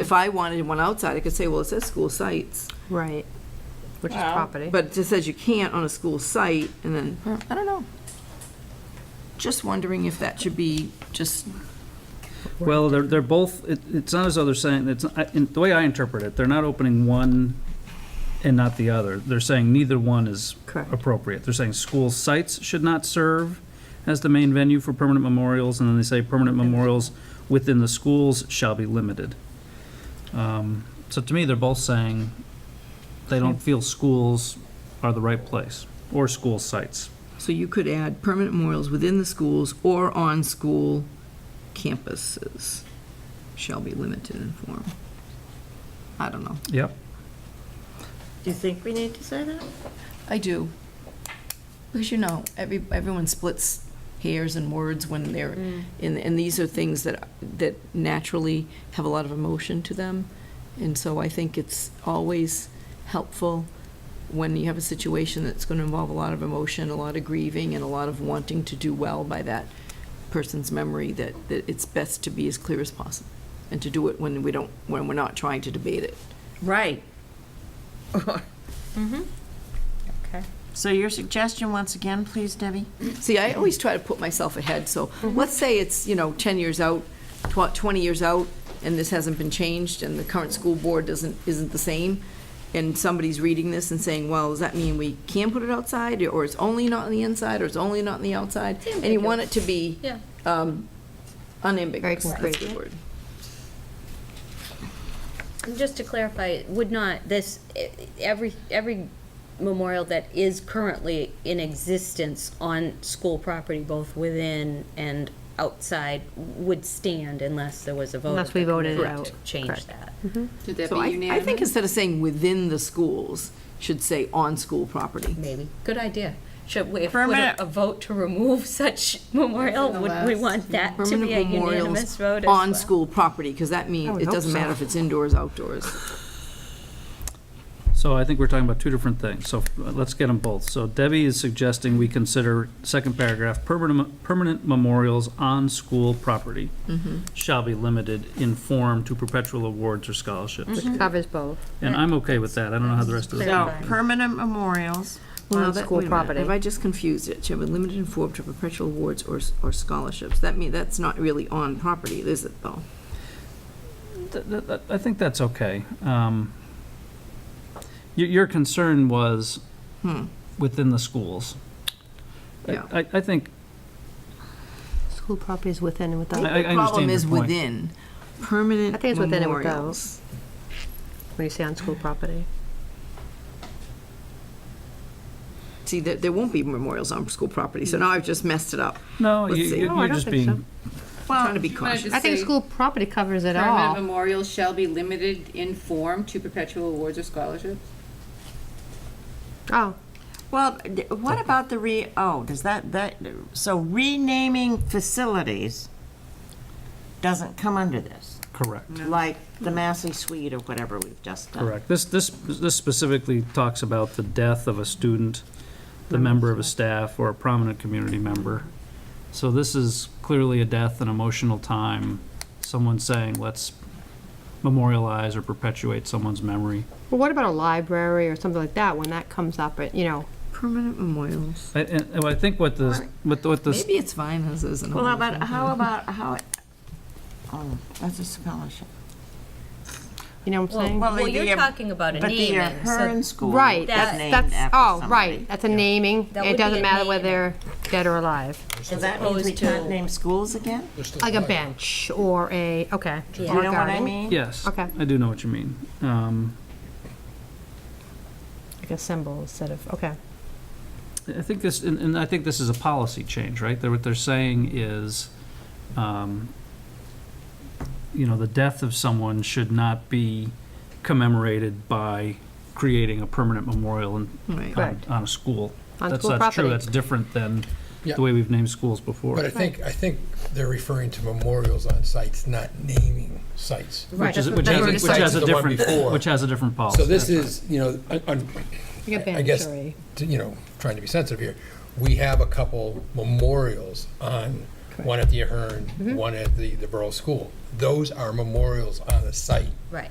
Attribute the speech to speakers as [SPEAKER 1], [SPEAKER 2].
[SPEAKER 1] If I wanted one outside, I could say, well, it says school sites,
[SPEAKER 2] Right, which is
[SPEAKER 3] Well,
[SPEAKER 2] property.
[SPEAKER 1] but it just says you can't on a school site, and then, I don't know. Just wondering if that should be just,
[SPEAKER 4] Well, they're, they're both, it, it's not as though they're saying, it's, I- in, the way I interpret it, they're not opening one and not the other. They're saying neither one is
[SPEAKER 2] Correct.
[SPEAKER 4] appropriate. They're saying school sites should not serve as the main venue for permanent memorials, and then they say permanent memorials within the schools shall be limited. Um, So to me, they're both saying they don't feel schools are the right place, or school sites.
[SPEAKER 1] so you could add permanent memorials within the schools or on school campuses shall be limited in form. I don't know.
[SPEAKER 4] Yep.
[SPEAKER 3] Do you think we need to say that?
[SPEAKER 1] I do. Because you know, every, everyone splits hairs and words when they're, and, and these are things that, that naturally have a lot of emotion to them. And so I think it's always helpful when you have a situation that's going to involve a lot of emotion, a lot of grieving, and a lot of wanting to do well by that person's memory, that, that it's best to be as clear as possible. And to do it when we don't, when we're not trying to debate it.
[SPEAKER 3] Right.
[SPEAKER 2] Mm-hmm.
[SPEAKER 5] Mm-hmm.
[SPEAKER 3] Okay. So your suggestion, once again, please, Debbie?
[SPEAKER 1] See, I always try to put myself ahead, so
[SPEAKER 2] Mm-hmm.
[SPEAKER 1] let's say it's, you know, 10 years out, tw- 20 years out, and this hasn't been changed, and the current school board doesn't, isn't the same, and somebody's reading this and saying, well, does that mean we can put it outside, or it's only not on the inside, or it's only not on the outside? And you want it to be
[SPEAKER 5] Yeah.
[SPEAKER 1] um, unambiguous,
[SPEAKER 2] Very
[SPEAKER 1] that's the
[SPEAKER 2] concrete.
[SPEAKER 1] word.
[SPEAKER 5] And Just to clarify, it would not this, e- every, every memorial that is currently in existence on school property, both within and outside, would stand unless there was a vote.
[SPEAKER 2] Unless
[SPEAKER 5] of
[SPEAKER 2] we
[SPEAKER 5] the
[SPEAKER 2] voted it
[SPEAKER 5] committee
[SPEAKER 2] out.
[SPEAKER 5] to Change
[SPEAKER 2] Correct.
[SPEAKER 5] that.
[SPEAKER 6] Did that
[SPEAKER 1] So
[SPEAKER 6] be
[SPEAKER 1] I, I
[SPEAKER 6] unanimous?
[SPEAKER 1] think instead of saying within the schools, should say on school property.
[SPEAKER 5] Maybe. Good idea. Should we, if we
[SPEAKER 3] Permanent-
[SPEAKER 5] a vote to remove such memorial, would we want that to
[SPEAKER 1] Permanent
[SPEAKER 5] be a unanimous
[SPEAKER 1] memorials
[SPEAKER 5] vote as
[SPEAKER 1] on
[SPEAKER 5] well?
[SPEAKER 1] school property, because that
[SPEAKER 2] I
[SPEAKER 1] means,
[SPEAKER 2] would
[SPEAKER 1] it
[SPEAKER 2] hope
[SPEAKER 1] doesn't matter
[SPEAKER 2] so.
[SPEAKER 1] if it's indoors, outdoors.
[SPEAKER 4] So I think we're talking about two different things, so uh, let's get them both. So Debbie is suggesting we consider, second paragraph, permanent, permanent memorials on school property
[SPEAKER 2] Mm-hmm.
[SPEAKER 4] shall be limited in form to perpetual awards or scholarships.
[SPEAKER 2] Covers both.
[SPEAKER 4] And I'm okay with that, I don't know how the rest of
[SPEAKER 3] So
[SPEAKER 4] the.
[SPEAKER 3] permanent memorials.
[SPEAKER 1] Well,
[SPEAKER 2] on
[SPEAKER 1] that-
[SPEAKER 2] school
[SPEAKER 1] wait a minute.
[SPEAKER 2] property.
[SPEAKER 1] Have I just confused it? Shall be limited in form to perpetual awards or, s- or scholarships. That mean, that's not really on property, is it, though?
[SPEAKER 4] Th- th- th- I think that's okay. Um, Your, your concern was
[SPEAKER 1] Hmm.
[SPEAKER 4] within the schools. I-
[SPEAKER 1] Yeah.
[SPEAKER 4] I, I think,
[SPEAKER 2] School property is within and
[SPEAKER 4] I, I
[SPEAKER 2] without.
[SPEAKER 4] understand your point.
[SPEAKER 1] Problem is within, permanent
[SPEAKER 2] I think it's within and without.
[SPEAKER 1] memorials.
[SPEAKER 2] What do you say on school property?
[SPEAKER 1] See, there, there won't be memorials on school property, so now I've just messed it up.
[SPEAKER 4] No, you-
[SPEAKER 1] Let's see.
[SPEAKER 4] you-
[SPEAKER 2] No, I
[SPEAKER 4] you're
[SPEAKER 2] don't
[SPEAKER 4] just
[SPEAKER 2] think so.
[SPEAKER 4] being,
[SPEAKER 1] I'm Trying to be
[SPEAKER 6] You wanna
[SPEAKER 1] cautious.
[SPEAKER 6] just
[SPEAKER 2] I think
[SPEAKER 6] say
[SPEAKER 2] school property covers it
[SPEAKER 6] Permanent
[SPEAKER 2] all.
[SPEAKER 6] memorials shall be limited in form to perpetual awards or scholarships?
[SPEAKER 2] Oh,
[SPEAKER 3] Well, d- what about the re, oh, does that, that, so renaming facilities doesn't come under this?
[SPEAKER 4] correct.
[SPEAKER 3] Like
[SPEAKER 2] Mm.
[SPEAKER 3] the Massey Suite or whatever we've just done?
[SPEAKER 4] Correct. This, this, this specifically talks about the death of a student, the member of a staff, or a prominent community member. So this is clearly a death, an emotional time, someone saying, let's memorialize or perpetuate someone's memory.
[SPEAKER 2] well, what about a library or something like that, when that comes up, it- you know?
[SPEAKER 1] Permanent memorials.
[SPEAKER 4] I- And, and I think what the, what the- what the,
[SPEAKER 1] Maybe it's fine as is. and
[SPEAKER 3] Well,
[SPEAKER 1] all
[SPEAKER 3] how
[SPEAKER 1] that.
[SPEAKER 3] about, how about, how, oh, that's a scholarship.
[SPEAKER 2] You know what I'm saying?
[SPEAKER 3] well,
[SPEAKER 5] Well,
[SPEAKER 3] the-
[SPEAKER 5] you're
[SPEAKER 3] the-
[SPEAKER 5] talking about a
[SPEAKER 3] But the
[SPEAKER 5] naming,
[SPEAKER 3] Ahern
[SPEAKER 5] so
[SPEAKER 3] School
[SPEAKER 2] Right,
[SPEAKER 3] was
[SPEAKER 2] that's,
[SPEAKER 3] named after
[SPEAKER 2] that's, oh,
[SPEAKER 3] somebody.
[SPEAKER 2] right, that's a naming.
[SPEAKER 5] That would
[SPEAKER 2] It
[SPEAKER 5] be
[SPEAKER 2] doesn't
[SPEAKER 5] a
[SPEAKER 2] matter whether
[SPEAKER 5] naming.
[SPEAKER 2] they're dead or alive.
[SPEAKER 3] So that means we
[SPEAKER 5] opposed to-
[SPEAKER 3] can't name schools again?
[SPEAKER 2] Like a bench or a, okay.
[SPEAKER 5] Yeah.
[SPEAKER 3] You
[SPEAKER 2] or a
[SPEAKER 3] know what I
[SPEAKER 2] garden.
[SPEAKER 3] mean?
[SPEAKER 4] yes.
[SPEAKER 2] Okay.
[SPEAKER 4] I do know what you mean. Um,
[SPEAKER 2] Like a symbol instead of, okay.
[SPEAKER 4] I think this, and, and I think this is a policy change, right? They're, what they're saying is, um, you know, the death of someone should not be commemorated by creating a permanent memorial in,
[SPEAKER 1] Right.
[SPEAKER 4] on,
[SPEAKER 2] Correct.
[SPEAKER 4] on a school.
[SPEAKER 2] On
[SPEAKER 4] That's-
[SPEAKER 2] school
[SPEAKER 4] That's true,
[SPEAKER 2] property.
[SPEAKER 4] that's different than
[SPEAKER 7] Yeah.
[SPEAKER 4] the way we've named schools before.
[SPEAKER 7] But I think, I think they're referring to memorials on sites, not naming sites.
[SPEAKER 2] Right.
[SPEAKER 4] Which is,
[SPEAKER 2] That's
[SPEAKER 4] which
[SPEAKER 2] what
[SPEAKER 4] has,
[SPEAKER 2] they
[SPEAKER 4] a-
[SPEAKER 2] were
[SPEAKER 4] which
[SPEAKER 2] deciding.
[SPEAKER 4] has a
[SPEAKER 7] The one
[SPEAKER 4] different,
[SPEAKER 7] before.
[SPEAKER 4] which has a different policy.
[SPEAKER 7] So this is, you know, on- on-
[SPEAKER 2] Like a
[SPEAKER 7] I guess,
[SPEAKER 2] bench or a-
[SPEAKER 7] to- you know, trying to be sensitive here, we have a couple memorials on
[SPEAKER 2] Mm-hmm.
[SPEAKER 7] one at the Ahern, one at the, the Borough School. Those are memorials on the site.
[SPEAKER 5] Right.